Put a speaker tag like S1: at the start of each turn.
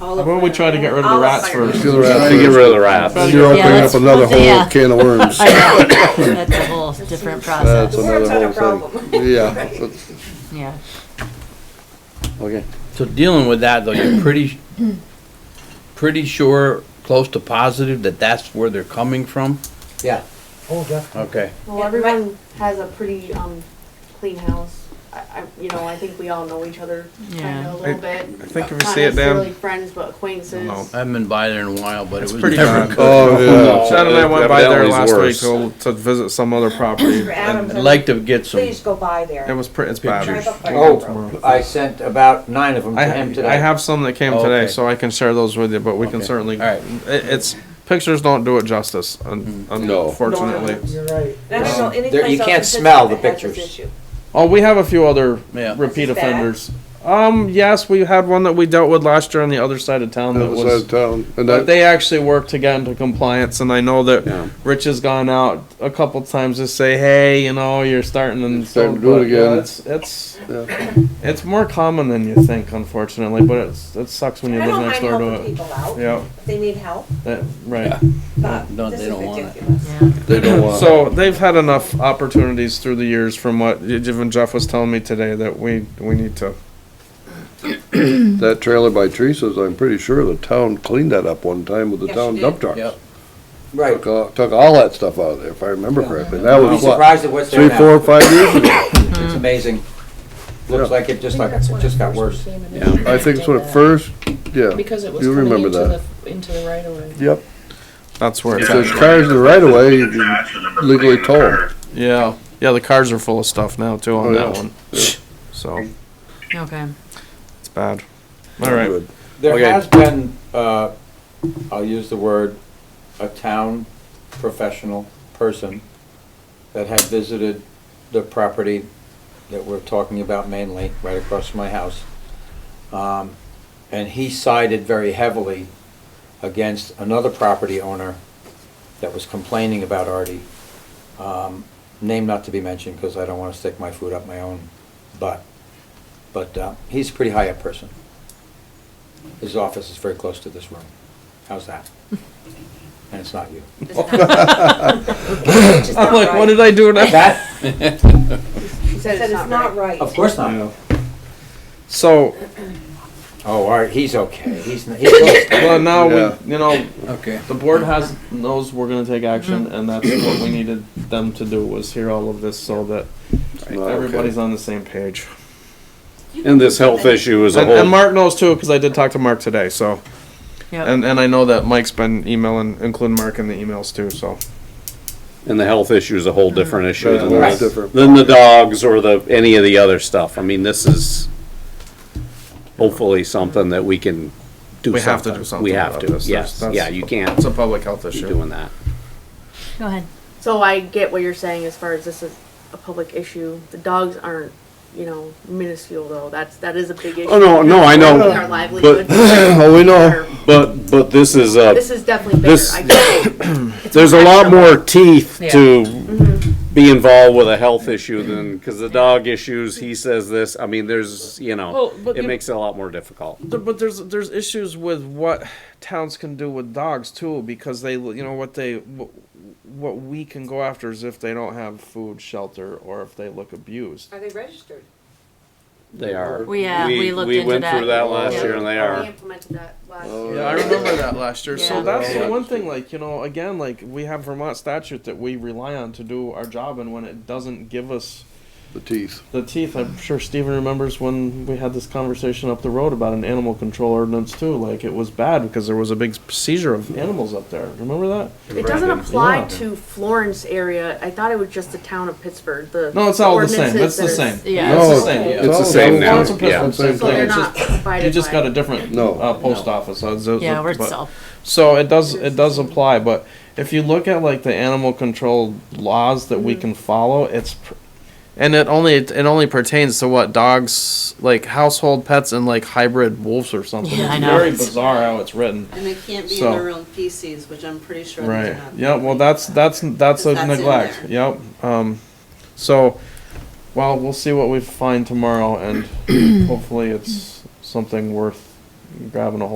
S1: All
S2: Why
S1: of
S2: don't we try to get rid of the
S1: All of
S2: rats
S1: fire.
S2: first?
S1: Get
S3: To get rid of the rats.
S2: Try to
S3: Well,
S2: get
S4: You're
S2: rid of the
S4: opening up
S2: rats.
S4: another Yeah. whole can of worms. uh, I know, that's a whole different
S3: That's
S4: process,
S1: Worms
S3: another
S1: are a
S3: whole
S1: problem.
S3: thing. Yeah, that's-
S4: yeah.
S3: okay.
S5: So dealing with that though, you're pretty, pretty sure, close to positive that that's where they're coming from?
S6: Yeah.
S7: Oh, definitely.
S5: Okay.
S8: Well, everyone has a pretty, um, clean house. I, I, you know, I think we all know each other kind
S4: Yeah.
S8: of a little bit.
S9: I think if you
S8: Not
S9: see it
S8: necessarily
S9: down,
S8: friends, but acquaintances.
S9: No.
S5: I haven't been by there in a while, but it
S9: It's
S5: was
S9: pretty
S5: never
S9: bad.
S5: good.
S3: Oh,
S9: Chad and I went by there
S3: Evidently it's
S9: last week
S3: worse.
S9: to, to visit some other property. and
S5: I'd like to get some,
S2: Please go by
S9: It
S2: there.
S9: was pretty, it's bad.
S5: Pictures.
S9: I'll go tomorrow.
S6: Oh, I sent about nine of them
S9: I,
S6: to him today.
S9: I have some that came
S5: Oh,
S9: today,
S5: okay.
S9: so I can share those with you, but we can
S5: Okay.
S9: certainly,
S5: All right.
S9: it, it's, pictures don't do it justice, un-
S3: No.
S9: unfortunately.
S7: You're right.
S1: I don't know
S9: Um,
S1: any
S6: there-
S1: place
S6: you
S1: else
S6: can't
S1: in Pittsburgh
S6: smell the
S1: that has this
S6: pictures.
S1: issue.
S9: Oh, we have a few other
S5: yeah.
S9: repeat
S1: This is bad.
S9: offenders. Um, yes, we had one that we dealt with last year on the other side of town that
S3: That was out
S9: was,
S3: of town. And
S9: but
S3: that,
S9: they actually worked to get into compliance, and I know
S3: Yeah.
S9: that Rich has gone out a couple times to say, hey, you know, you're starting and
S3: Starting
S9: so,
S3: to do it
S9: but, yeah,
S3: again.
S9: It's, it's,
S3: yeah.
S9: it's more common than you think, unfortunately, but it's, it sucks when you
S2: I
S9: live
S2: don't mind
S9: next door
S2: helping
S9: to it.
S2: people out.
S9: Yeah,
S2: If they need help,
S9: that- right.
S2: but
S5: No,
S2: this
S5: they
S2: is
S5: don't want it.
S2: ridiculous.
S3: They don't want.
S9: So they've had enough opportunities through the years, from what even Jeff was telling me today, that we we need to.
S3: That trailer by Teresa's, I'm pretty sure the town cleaned that up one time with the
S1: Yes,
S3: town
S1: she
S3: dump
S1: did.
S3: truck.
S5: Yep.
S6: Right.
S3: Took all- took all that stuff out of there, if I remember correctly. That
S6: I'd be
S3: was what,
S6: surprised at what's
S3: three,
S6: there now.
S3: four, five years ago?
S6: It's amazing. Looks
S3: Yeah.
S6: like it just like, it just got worse.
S3: I think it's when it first, yeah.
S10: Because it was
S3: You
S10: coming
S3: remember
S10: into
S3: that.
S10: the, into the right of way.
S3: Yep.
S9: That's where
S3: If
S9: it's
S3: there's
S9: at.
S3: cars in the right of way, you can legally tow 'em.
S9: Yeah, yeah. The cars are full of stuff now too on
S3: Oh,
S9: that
S3: yeah.
S9: one, so
S4: Okay.
S9: it's bad. All right.
S3: Good.
S6: There
S3: Okay.
S6: has been, uh, I'll use the word, a town professional person that had visited the property that we're talking about mainly, right across from my house. Um, And he sided very heavily against another property owner that was complaining about Artie. Um, Name not to be mentioned, because I don't want to stick my foot up my own butt. But uh, he's a pretty high up person. His office is very close to this room. How's that? And it's not you. Oh,
S2: It's just not
S9: I'm like,
S2: right.
S9: what did I do now?
S6: That,
S2: She said it's not right.
S6: of course not.
S9: So
S6: Oh, all right, he's okay. He's, n- he's close.
S9: well, now
S3: Yeah.
S9: we, you know,
S5: Okay.
S9: the board has knows we're gonna take action,
S2: Mm-hmm.
S9: and that's what we needed them to do was hear all of this so that
S3: It's
S9: Oh,
S3: not okay.
S9: everybody's on the same page.
S3: And this health issue is
S9: And, and Mark knows too, because I did talk to Mark today. So.
S4: Yep.
S9: And, and I know that Mike's been emailing, including Mark in the emails too, so.
S11: And the health issue is a
S10: Mm-hmm.
S11: whole different issue than,
S3: That's
S6: Right.
S3: different.
S11: than the dogs or the, any of the other stuff. I mean, this is hopefully something that we can do something.
S9: We have to do something
S11: We have
S9: about
S11: to,
S9: this. That's-
S11: yes.
S9: that's-
S11: Yeah, you can't
S9: It's a public health
S11: be
S9: issue.
S11: doing that.
S4: Go ahead.
S8: So I get what you're saying as far as this is a public issue. The dogs aren't, you know, minuscule though. That's, that is a big issue.
S11: Oh, no, no, I know,
S8: Our livelihood.
S3: Oh, we know.
S11: But, but this is a,
S8: This is definitely bigger.
S11: This-
S8: I get it.
S11: there's a lot more teeth to
S9: Mm-hmm.
S11: be involved with a health issue than, because the dog issues, he says this, I mean, there's, you
S9: Well,
S11: know,
S9: but
S11: it
S9: you-
S11: makes it a lot more difficult.
S9: But there's, there's issues with what towns can do with dogs too, because they, you know, what they, what we can go after is if they don't have food, shelter, or if they look abused.
S2: Are they registered?
S11: They are.
S4: We, uh, we looked into
S11: We went
S4: that.
S11: through that last
S4: Yeah.
S11: year and they are.
S8: We implemented that last
S3: Oh,
S8: year.
S9: Yeah, I remember that last year. So
S4: Yeah.
S9: that's the one thing, like, you know, again, like, we have Vermont statute that we rely on to do our job, and when it doesn't give us
S3: The teeth.
S9: the teeth. I'm sure Steven remembers when we had this conversation up the road about an animal control ordinance too. Like it was bad because there was a big seizure of animals up there. Remember that?
S8: It doesn't apply
S9: Yeah.
S8: to Florence area. I thought it was just the town of Pittsburgh, the.
S9: No, it's all the same. It's
S8: ordinances
S9: the
S8: that are-
S9: same.
S4: Yeah.
S9: it's the
S3: No,
S9: same.
S3: it's
S9: Yeah.
S3: all
S11: the same now,
S9: It's a
S11: yeah.
S9: different same
S8: So they're
S9: thing. It's
S8: not
S9: just-
S8: provided
S9: You just
S8: by-
S9: got a different
S3: No.
S9: uh, post office. Uh, so-
S4: Yeah, we're
S9: but-
S4: still,
S9: So it does it does apply, but if you look at like the animal control laws that
S4: Mm-hmm.
S9: we can follow, it's pr- and it only it only pertains to what dogs like household pets and like hybrid wolves or something.
S4: Yeah,
S9: it's
S4: I know.
S9: very bizarre how it's written.
S1: And they can't be in
S9: So-
S1: their own feces, which I'm pretty sure
S9: Right.
S1: they're not.
S9: Yeah. Well, that's that's that's a
S1: That's in
S9: neglect. Yep. Um, so, well, we'll see what we find tomorrow, and hopefully, it's something worth grabbing a hold.